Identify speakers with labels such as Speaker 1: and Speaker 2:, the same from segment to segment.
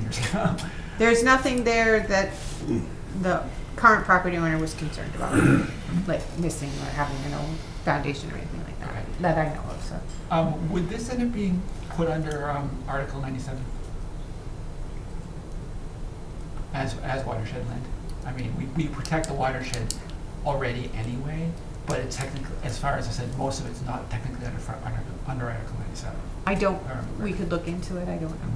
Speaker 1: years ago.
Speaker 2: There's nothing there that the current property owner was concerned about, like missing or having an old foundation or anything like that, that I know of, so.
Speaker 1: Um, would this end up being put under, um, Article ninety-seven? As, as watershed land? I mean, we, we protect the watershed already anyway, but it technically, as far as I said, most of it's not technically under, fr- under, under Article ninety-seven.
Speaker 2: I don't, we could look into it, I don't know.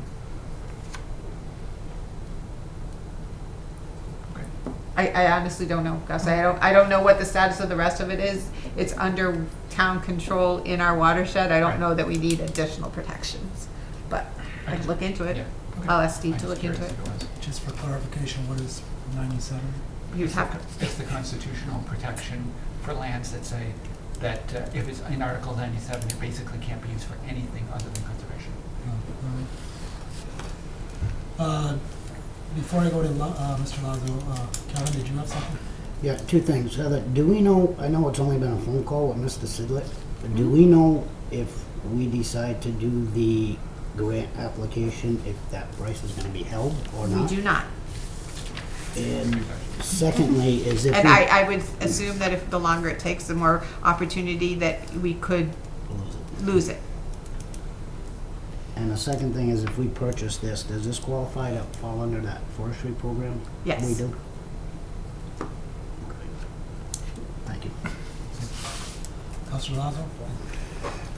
Speaker 1: Okay.
Speaker 2: I, I honestly don't know, Gus. I don't, I don't know what the status of the rest of it is. It's under town control in our watershed. I
Speaker 1: Right.
Speaker 2: don't know that we need additional protections, but I can look into
Speaker 1: Yeah,
Speaker 2: it.
Speaker 1: okay.
Speaker 2: I'll ask Steve
Speaker 1: I'm
Speaker 2: to
Speaker 1: just
Speaker 2: look into
Speaker 1: curious
Speaker 2: it.
Speaker 1: if was.
Speaker 3: Just for clarification, what is ninety-seven?
Speaker 2: You'd have,
Speaker 1: It's the constitutional protection for lands that say that uh, if it's in Article ninety-seven, it basically can't be used for anything other than conservation.
Speaker 3: Oh, alright. Uh, Before I go to Lo- uh, Mr. Lazo, uh, Kevin, did you have something?
Speaker 4: Yeah, two things. Heather, do we know, I know it's only been a phone call with Mr. Sidlett, but
Speaker 2: Mm-hmm.
Speaker 4: do we know if we decide to do the grant application, if that price is gonna be held or
Speaker 2: we
Speaker 4: not?
Speaker 2: do not.
Speaker 4: And secondly, is if
Speaker 2: And
Speaker 4: we-
Speaker 2: I, I would assume that if the longer it takes, the more opportunity that we could lose it.
Speaker 4: And the second thing is if we purchase this, does this qualify to fall under that forestry program?
Speaker 2: Yes.
Speaker 4: We do? Okay. Thank you.
Speaker 3: Mr. Lazo?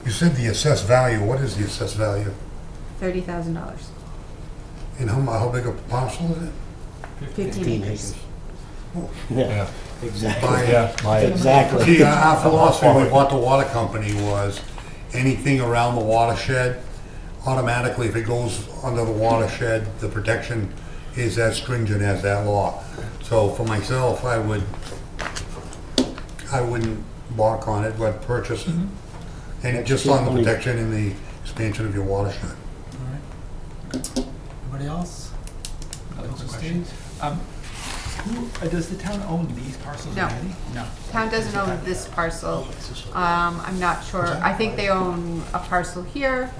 Speaker 5: You said the assessed value, what is the assessed value?
Speaker 2: Thirty thousand dollars.
Speaker 5: And how, mu- how big a parcel is it?
Speaker 2: Fifteen acres.
Speaker 4: Yeah, exactly.
Speaker 5: By,
Speaker 4: Exactly.
Speaker 5: see, our- our philosophy when we bought the water company was, anything around the watershed, automatically, if it goes under the watershed, the protection is as stringent as that law. So for myself, I would, I wouldn't balk on it, but purchase it. And it just on the protection and the expansion of your watershed.
Speaker 3: All right. Anybody else?
Speaker 1: Another quick
Speaker 3: Mr.
Speaker 1: question.
Speaker 3: Steve?
Speaker 1: Um, Who, uh, does the town own these parcels
Speaker 2: No.
Speaker 1: already? No.
Speaker 2: Town doesn't own this parcel. Um, I'm not sure. I think they own a parcel here.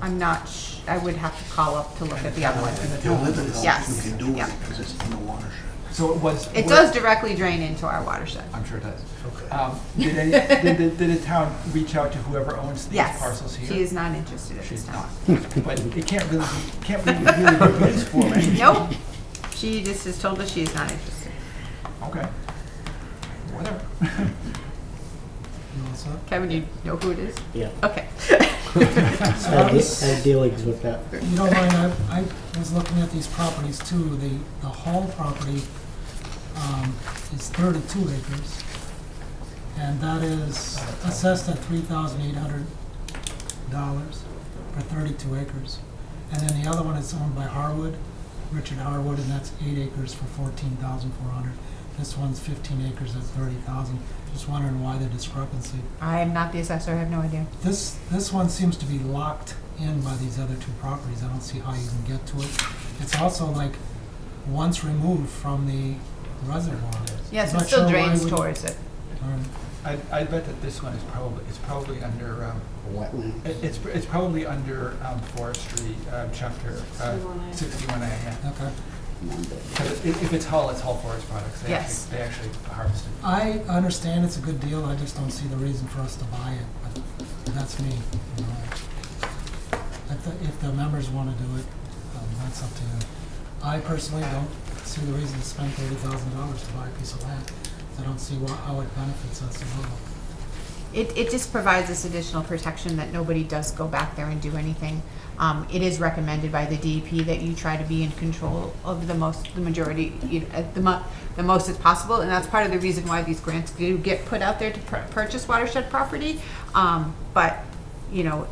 Speaker 2: I'm not, sh- I would have to call up to look at the other one.
Speaker 1: And the
Speaker 6: You'll
Speaker 1: town
Speaker 6: live
Speaker 1: owns
Speaker 6: in
Speaker 1: this.
Speaker 6: those,
Speaker 2: Yes,
Speaker 6: you can do
Speaker 2: yeah.
Speaker 6: it because it's in the watershed.
Speaker 1: So it was.
Speaker 2: It
Speaker 1: was-
Speaker 2: does directly drain into our watershed.
Speaker 1: I'm sure it does. Um, Did any, did, the- did the town reach out to whoever owns these parcels
Speaker 2: Yes,
Speaker 1: here?
Speaker 2: she is not interested at this
Speaker 1: She's
Speaker 2: time.
Speaker 1: not. But it can't really, be- can't be really be used for anything.
Speaker 2: Nope, she just has told us she is not interested.
Speaker 1: Okay. Whatever.
Speaker 3: You all set?
Speaker 2: Kevin, you know who it is?
Speaker 4: Yeah.
Speaker 2: Okay.
Speaker 4: I de- I dealings with that.
Speaker 3: You don't mind, I, I was looking at these properties too, the, the Hall property, um, is thirty-two acres. And that is assessed at three thousand eight hundred dollars for thirty-two acres. And then the other one is owned by Harwood, Richard Harwood, and that's eight acres for fourteen thousand four hundred. This one's fifteen acres at thirty thousand, just wondering why the discrepancy.
Speaker 2: I am not the assessor, I have no idea.
Speaker 3: This, this one seems to be locked in by these other two properties, I don't see how you can get to it. It's also like, once removed from the reservoir.
Speaker 2: Yes,
Speaker 3: I'm
Speaker 2: it
Speaker 3: not
Speaker 2: still
Speaker 3: sure why
Speaker 2: drains
Speaker 3: we-
Speaker 2: towards it.
Speaker 3: um,
Speaker 1: I, I bet that this one is probably, it's probably under, um,
Speaker 4: Wetland.
Speaker 1: it- it's, it's probably under, um, forestry, um, chapter, uh, sixty-one A, yeah.
Speaker 3: Okay.
Speaker 1: Because if, if it's Hull, it's Hull Forest Products. They
Speaker 2: Yes.
Speaker 1: actually, they actually harvest it.
Speaker 3: I understand it's a good deal, I just don't see the reason for us to buy it, but that's me. you know. If the, if the members wanna do it, um, that's up to you. I personally don't see the reason to spend thirty thousand dollars to buy a piece of land. I don't see wha- how it benefits us at all.
Speaker 2: It, it just provides this additional protection that nobody does go back there and do anything. Um, it is recommended by the DEP that you try to be in control of the most, the majority, you know, at the mo- the most as possible, and that's part of the reason why these grants do get put out there to pur- purchase watershed property. Um, but, you know,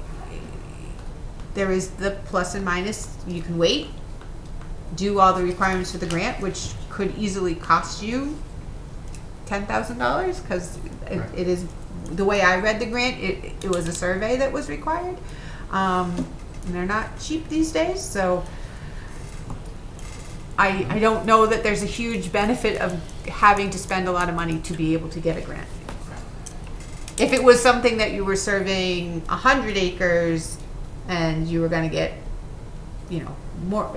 Speaker 2: there is the plus and minus, you can wait, do all the requirements for the grant, which could easily cost you ten thousand dollars because it,
Speaker 1: Right.
Speaker 2: it is the way I read the grant. It it was a survey that was required, um, and they're not cheap these days. So I I don't know that there's a huge benefit of having to spend a lot of money to be able to get a grant. If it was something that you were surveying a hundred acres and you were going to get, you know, more